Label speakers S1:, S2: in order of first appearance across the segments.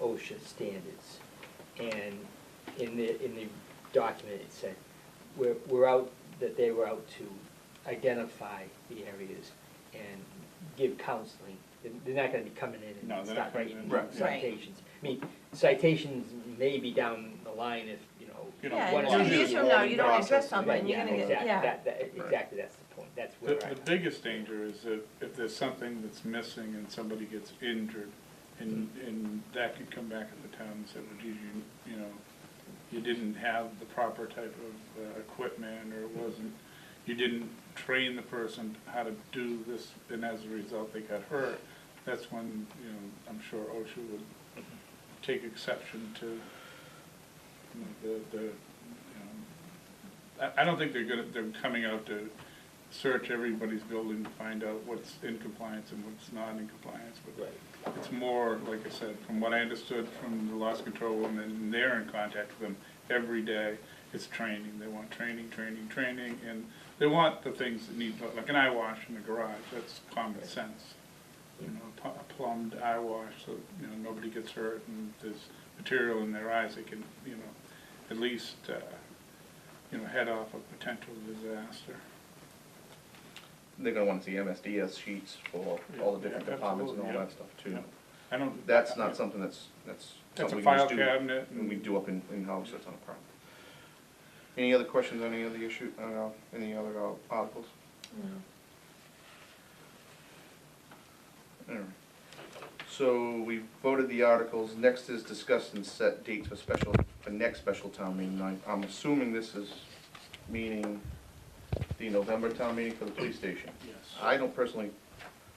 S1: OSHA standards. And in the, in the document, it said, we're, we're out, that they were out to identify the areas and give counseling. They're- They're not gonna be coming in
S2: No,
S1: and
S2: they're not
S1: start
S2: coming
S1: writing
S2: in.
S3: Right.
S1: citations. I mean, citations may be down the line if, you
S2: You
S1: know.
S2: know,
S4: Yeah,
S1: one
S4: and
S1: or
S2: why
S4: two
S1: two-
S2: do
S4: years
S2: the
S4: from now,
S2: wrong
S4: you don't address
S2: process.
S1: Right,
S4: something, you're gonna get,
S1: exactly,
S4: yeah.
S1: that- that- Exactly, that's the point, that's
S2: The,
S1: where I.
S2: the biggest danger is that if there's something that's missing and somebody gets injured, and, and that could come back at the town and say, well, geez, you, you know, you didn't have the proper type of uh, equipment, or it wasn't, you didn't train the person how to do this, and as a result, they got hurt. That's when, you know, I'm sure OSHA would take exception to, you know, the, the, you know, I, I don't think they're gonna, they're coming out to search everybody's building to find out what's in compliance and what's not in compliance, but it's more, like I said, from what I understood from the loss control woman, and they're in contact with them every day, it's training, they want training, training, training, and they want the things that need, like an eye wash in the garage, that's common sense. You know, a pu- a plumbed eye wash, so, you know, nobody gets hurt, and there's material in their eyes that can, you know, at least, uh, you know, head off a potential disaster.
S3: They're gonna wanna see MSDS sheets for all the different
S2: Yeah,
S3: departments and all
S2: absolutely,
S3: that stuff too.
S2: yeah. I don't.
S3: That's not something that's, that's
S2: That's
S3: something
S2: a
S3: we
S2: file
S3: just do.
S2: cabinet.
S3: And we do up in, in-house, that's not a problem. Any other questions on any of the issue, uh, any other uh, articles? All right. So we voted the articles, next is discuss and set dates for special, for next special town meeting night. I'm assuming this is meaning the November town meeting for the police station.
S2: Yes.
S3: I don't personally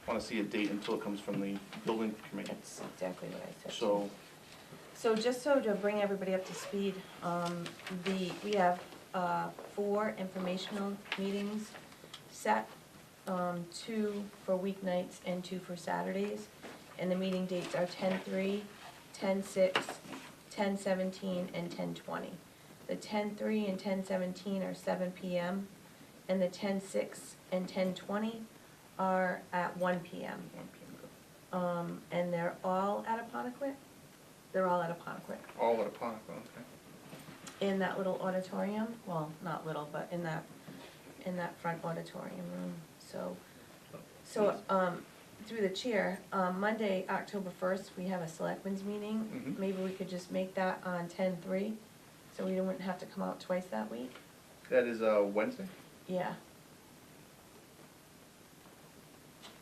S3: wanna see a date until it comes from the building committee,
S4: That's exactly what I said.
S3: so.
S4: So just so to bring everybody up to speed, um, the, we have, uh, four informational meetings set, um, two for weeknights and two for Saturdays. And the meeting dates are ten-three, ten-six, ten-seventeen, and ten-twenty. The ten-three and ten-seventeen are seven PM, and the ten-six and ten-twenty are at one PM. Um, and they're all at Aponequid? They're all at Aponequid,
S3: All at a Ponquon, okay.
S4: in that little auditorium, well, not little, but in that, in that front auditorium room, so. So, um, through the chair, um, Monday, October first, we have a selectmen's meeting,
S3: Mhm.
S4: maybe we could just make that on ten-three, so we wouldn't have to come out twice that week,
S3: That is, uh, Wednesday?
S4: yeah.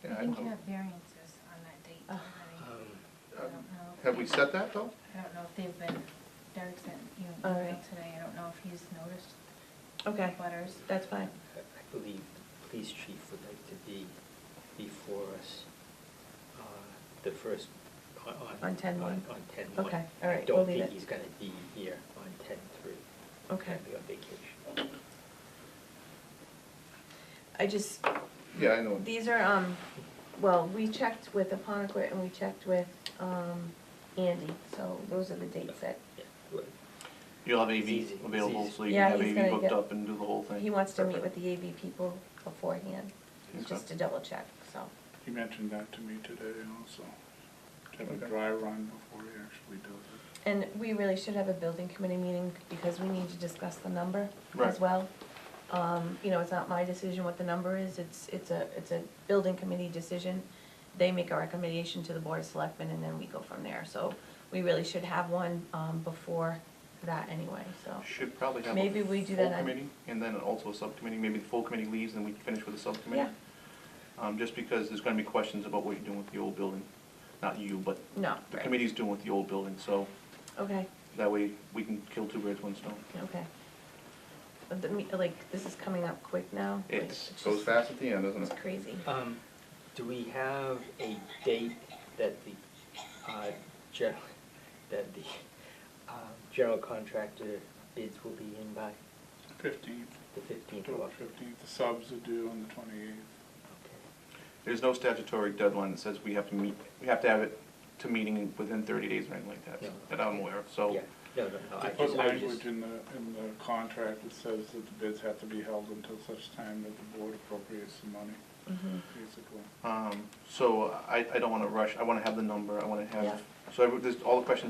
S3: Yeah,
S5: I
S3: I
S5: think
S3: don't
S5: you
S3: know.
S5: have variances on that date
S4: Oh.
S5: already.
S1: Um,
S5: I
S3: Uh,
S5: don't know. if
S3: Have we
S5: they-
S3: set that though?
S5: I don't know if they've been, Derek sent you an
S4: All
S5: email
S4: right.
S5: today, I don't know if he's noticed
S4: Okay,
S5: letters.
S4: that's fine,
S1: I I believe the police chief would like to be before us, uh, the first, on, on.
S4: On 10-1?
S1: On ten one.
S4: Okay, all right,
S1: I
S4: we'll
S1: don't
S4: leave
S1: think
S4: it.
S1: he's gonna be here on ten three.
S4: okay.
S1: He's gonna be on vacation.
S4: I just,
S3: Yeah, I know.
S4: These are, um, well, we checked with Aponequid and we checked with, um, Andy, so those are the dates that,
S1: Yeah, well,
S3: You'll have
S1: It's easy,
S3: AV
S1: it's
S3: available,
S1: easy.
S3: so you
S4: Yeah,
S3: can have
S4: he's
S3: AV
S4: gonna
S3: booked
S4: get-
S3: up and do the whole thing.
S4: he wants to meet with
S3: Perfect.
S4: the AV people beforehand, just to double check, so.
S2: He mentioned that to me today also. To have a
S3: Okay.
S2: dry run before he actually does
S4: And we really should have a building committee meeting because we need to discuss the number
S3: Right.
S4: as well. Um, you know, it's not my decision what the number is, it's, it's a, it's a building committee decision. They make a recommendation to the board of selectmen and then we go from there, so we really should have one, um, before that anyway, so.
S3: Should probably have
S4: Maybe
S3: a
S4: we do
S3: full
S4: that on-
S3: committee, and then also a subcommittee, maybe the full committee leaves, and we finish with a subcommittee. Um, just because there's gonna be questions about what you're doing with the old building, not you, but
S4: No,
S3: the
S4: right.
S3: committee's doing with the old building, so
S4: Okay,
S3: that way we can kill two birds, one stone.
S4: okay. But the, me- like, this is coming up quick now. like,
S3: It goes
S4: just-
S3: fast at the end, doesn't
S4: It's
S3: it?
S4: crazy.
S1: Um, do we have a date that the, uh, gen, that the, uh, general contractor bids will be in by
S2: it. Fifteenth,
S1: the fifteenth of
S2: October
S1: October?
S2: fifteenth, the subs are due on the twenty-eighth.
S1: Okay.
S3: There's no statutory deadline that says we have to meet, we have to have it to meeting within thirty days or anything like that,
S1: No.
S3: that I'm aware of, so.
S1: Yeah, no, no, no, I
S2: They
S1: just,
S2: put
S1: I was just.
S2: language in the, in the contract that says that the bids have to be held until such time that the board appropriates the money,
S4: Mhm.
S2: basically.
S3: Um, so I, I don't wanna rush, I wanna have the number, I wanna
S4: Yeah.
S3: have, so every- there's all the questions